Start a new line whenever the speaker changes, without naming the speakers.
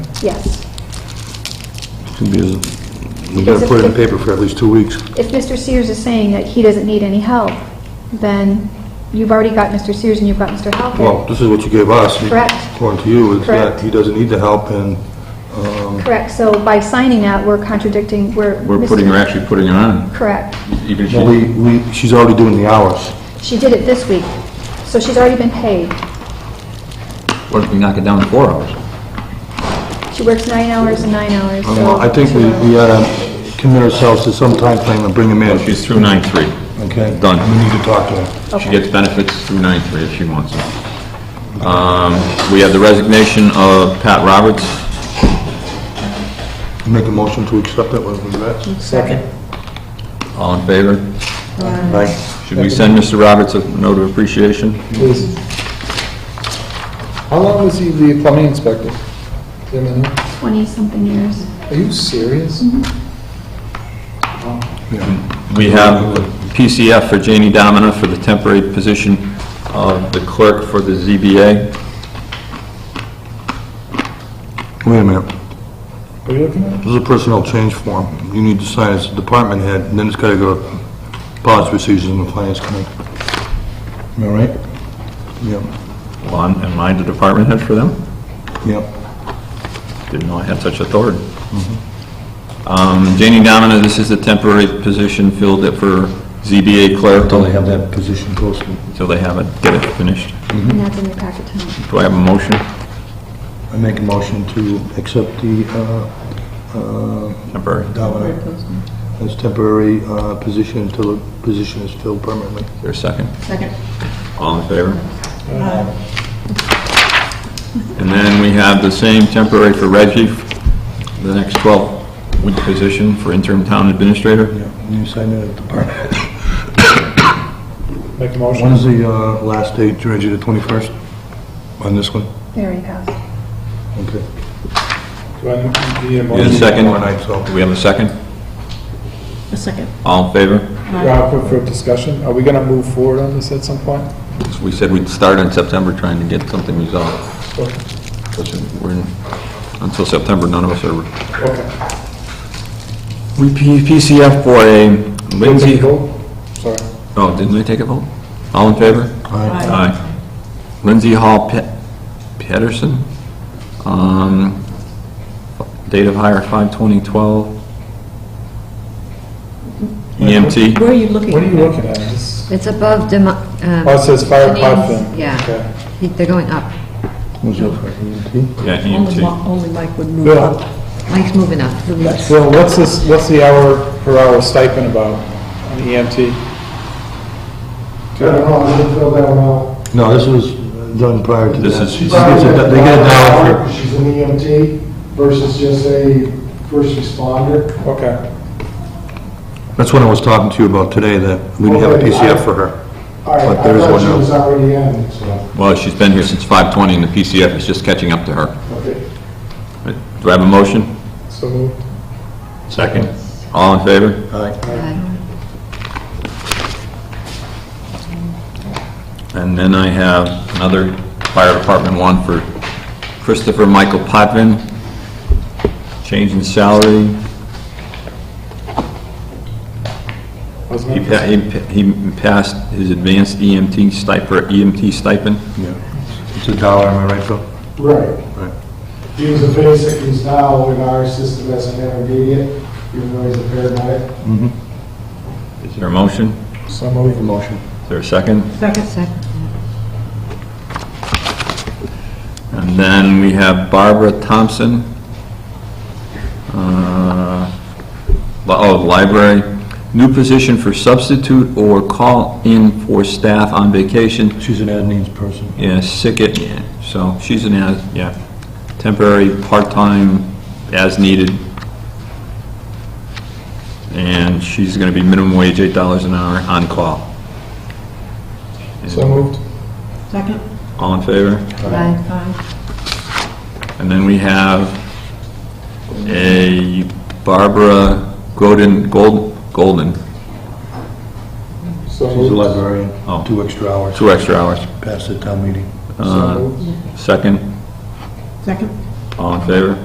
Yes.
We've got to put it in the paper for at least two weeks.
If Mr. Sears is saying that he doesn't need any help, then you've already got Mr. Sears and you've got Mr.
Well,
Halpin.
this is what you gave us.
Correct.
According to you, it's
Correct.
not, he doesn't need the help, and, um,
Correct, so by signing that, we're contradicting, we're...
We're
mis-
putting her, actually putting her on,
Correct.
even if
well,
she,
we, we, she's already doing the hours.
She did it this week, so she's already been paid.
what if we knock it down to four hours?
She works nine hours and nine hours,
Um,
so...
I think we, we ought to commit ourselves to some time frame and bring him in,
She's through nine three.
okay?
Done.
We need to talk to him.
She gets benefits through nine three if she wants them. Um, We have the resignation of Pat Roberts.
Make a motion to accept that with regrets.
Second.
All in favor?
Right.
Should we send Mr. Roberts a note of appreciation?
Please. How long was he the plumbing inspector? Do you know?
20-something years.
Are you serious?
We have PCF for Janie Domina for the temporary position of the clerk for the ZBA.
Wait a minute.
Are you looking at?
This is a personnel change form. You need to sign as a department head, and then it's got to go to policy procedures and the finance committee. Am I right? Yep,
Well, I'm- am I the department head for them?
yep.
Didn't know I had such authority. Um, Janie Domina, this is the temporary position filled it for ZBA clerk
Until they have that position posted.
until they have it, get it finished.
Mm-hmm.
And that's in your packet tonight.
Do I have a motion?
I make a motion to accept the, uh, uh,
Temporary. Is
Domino as temporary uh, position until the position is filled permanently.
there a second?
Second.
All in favor? And then we have the same temporary for Reggie, the next 12-week position for interim town administrator.
Yeah, and you sign that at the department.
Make a motion.
When's the uh, last date, Reggie, the 21st? On this one?
There you go.
Okay.
Do I need a
Need a
motion?
second?
Tomorrow night, so-
Do we have a second?
A second.
All in favor?
Rob, for- for discussion, are we gonna move forward on this at some point?
We said we'd start in September trying to get something resolved.
Okay.
Because we're in- Until September, none of us are...
Okay.
We PCF for a Lindsay...
Go. Sorry.
Oh, didn't we take a vote? All in favor?
Aye.
Aye. Lindsay Hall Pe- Pedersen, um, date of hire 5/20/12. EMT,
Where are you looking?
What are you looking at? This-
It's above Demo... um,
Oh, it says fire
Denise.
hydrant. Okay.
Yeah. He- They're going up.
Who's that for, E EMT?
yeah, E
Only Mi-
EMT.
Only Mike would move
Bill,
up.
Mike's moving up.
Bill, what's this, what's the hour per hour stipend about on the E EMT?
No, this was done prior to that.
This is-
She gets a- They get a dollar for,
She's an EMT versus just a first responder.
Okay.
that's what I was talking to you about today, that we didn't have a
Okay, I-
PCF for her.
All right,
But
I
there is
thought
one
she
now.
was already in, so,
Well, she's been here since 5/20, and the PCF is just catching up to her.
okay.
Do I have a motion?
So moved.
Second. All in favor?
Aye.
And then I have another fire department one for Christopher Michael Potvin, change in salary.
Wasn't
He
it?
pa- he pa- he passed his advanced E EMT stipend, EMT E stipend.
Yeah. It's a dollar, am I right, Phil? Right.
Right. He was a basic, he's now in our system as an intermediate, even though he's a paramedic.
Is there a motion?
So moved.
Motion.
Is there a second?
Second.
Second.
And then we have Barbara Thompson. Uh, li- Oh, library, new position for substitute or call-in for staff on vacation.
She's an ad needs person.
Yeah, sick it, yeah, so she's an as, yeah, temporary, part-time, as needed. And she's gonna be minimum wage, eight dollars an hour, on call.
So moved.
Second.
All in favor?
Aye.
Aye.
And then we have a Barbara Golden, Gold, Golden,
So
She's a
moved.
librarian,
Oh.
two extra hours,
two extra hours. Uh,
past the town meeting.
So moved.
Second,
Second.
all in favor?